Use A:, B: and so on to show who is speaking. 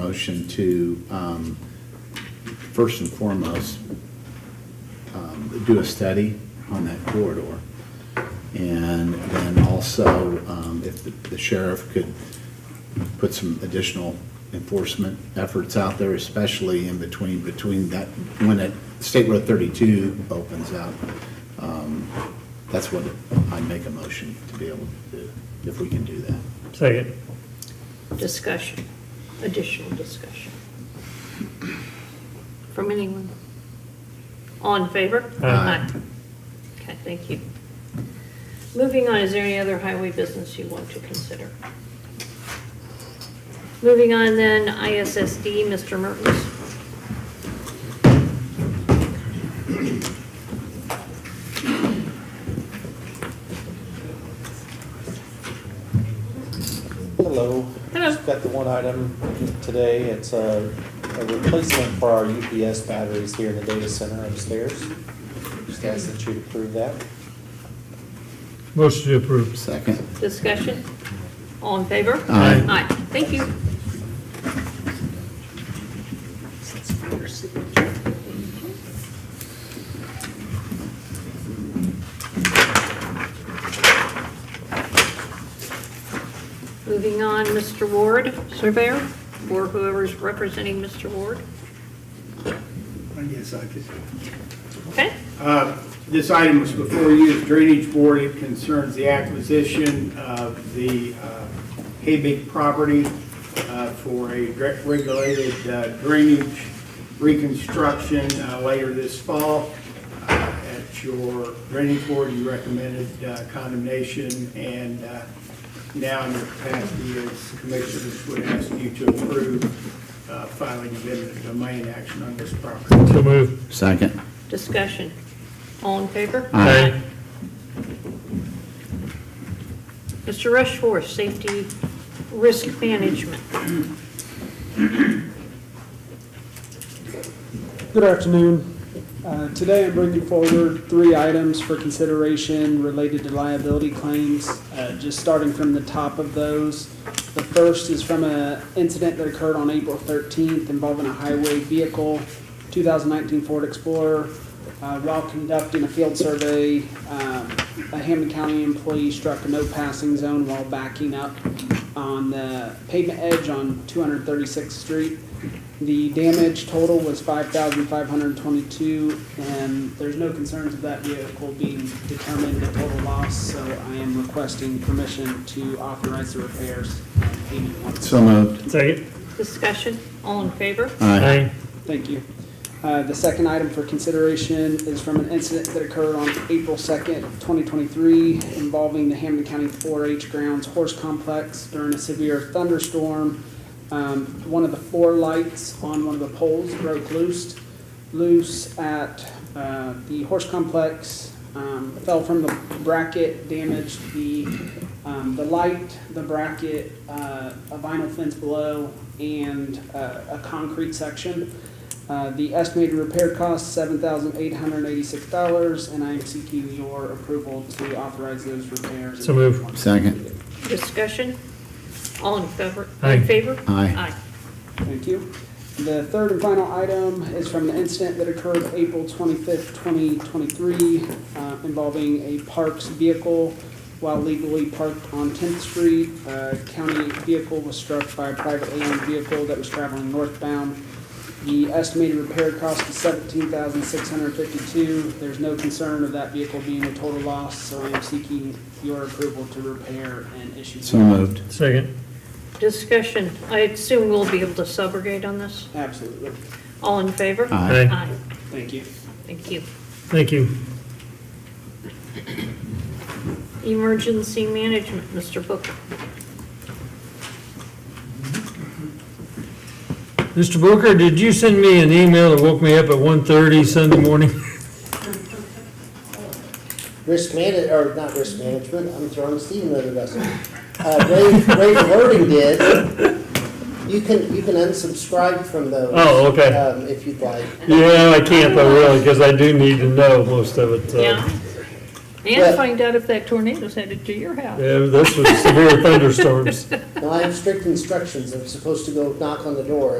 A: motion to, um, first and foremost, um, do a study on that corridor. And then also, um, if the- the sheriff could put some additional enforcement efforts out there, especially in between, between that, when it, State Road 32 opens up. um, That's what I'd make a motion to be able to do, if we can do that.
B: Second.
C: Discussion, additional discussion. From anyone? All in favor?
B: Aye.
C: Okay, thank you. Moving on, is there any other highway business you want to consider? Moving on then, ISSD, Mr. Mertens.
D: Hello.
C: Hello.
D: Just got the one item today. It's a a replacement for our UPS batteries here in the data center upstairs. Just ask that you approve that.
B: Motion to approve.
A: Second?
C: Discussion? All in favor?
A: Aye.
C: Aye, thank you. Moving on, Mr. Ward, surveyor, or whoever's representing Mr. Ward.
E: Yes, I could.
C: Okay,
E: Uh, This item is before you, the Drainage Board. It concerns the acquisition of the uh, Habig property uh, for a direct regulated uh, drainage reconstruction uh, later this fall. Uh, At your Drainage Board, you recommended uh, condemnation, and uh, now in your capacity as commissioners would ask you to approve uh, filing of eminent domain action on this property.
B: So move.
A: Second?
C: discussion. All in favor?
A: Aye.
C: Mr. Rushforth, Safety Risk Management.
F: Good afternoon. Uh, Today I'm bringing forward three items for consideration related to liability claims. Uh, Just starting from the top of those, the first is from an incident that occurred on April 13th involving a highway vehicle, 2019 Ford Explorer. Uh, While conducting a field survey, um, a Hammond County employee struck a no-passing zone while backing up on the pavement edge on 236th Street. The damage total was five thousand five hundred twenty-two, and there's no concerns of that vehicle being determined a total loss, so I am requesting permission to authorize the repairs and payment once.
A: So moved.
B: Second.
C: Discussion, all in favor?
A: Aye.
F: Thank you. Uh, The second item for consideration is from an incident that occurred on April 2nd, 2023, involving the Hampton County 4-H Grounds Horse Complex during a severe thunderstorm. Um, One of the four lights on one of the poles broke loose, loose at uh, the horse complex, um, fell from the bracket, damaged the, um, the light, the bracket, uh, a vinyl fence below, and uh, a concrete section. Uh, The estimated repair cost, seven thousand eight hundred eighty-six dollars, and I am seeking your approval to authorize those repairs.
B: So moved.
A: Second?
C: Discussion, all in favor?
B: Aye.
C: In favor?
A: Aye.
F: Thank you. The third and final item is from an incident that occurred April 25th, 2023, uh, involving a park's vehicle while legally parked on 10th Street. Uh, County vehicle was struck by a privately owned vehicle that was traveling northbound. The estimated repair cost is $17,652. There's no concern of that vehicle being a total loss, so I am seeking your approval to repair and issue.
A: So moved.
B: Second.
C: Discussion, I assume we'll be able to subrogate on this?
F: Absolutely.
C: All in favor?
A: Aye.
F: Thank you.
C: Thank you.
B: Thank you.
C: Emergency Management, Mr. Booker.
B: Mr. Booker, did you send me an email that woke me up at 1:30 Sunday morning?
G: risk manag, or not risk management, I'm throwing Steve under the bus. Uh, Ray, Ray Verding did. You can, you can unsubscribe from those.
B: Oh, okay.
G: Um, if you'd like.
B: Yeah, I can't, I really, because I do need to know most of it, uh, so.
C: Yeah. And find out if that tornado's headed to your house.
B: Yeah, this was severe thunderstorms.
G: Now, I have strict instructions, I'm supposed to go knock on the door,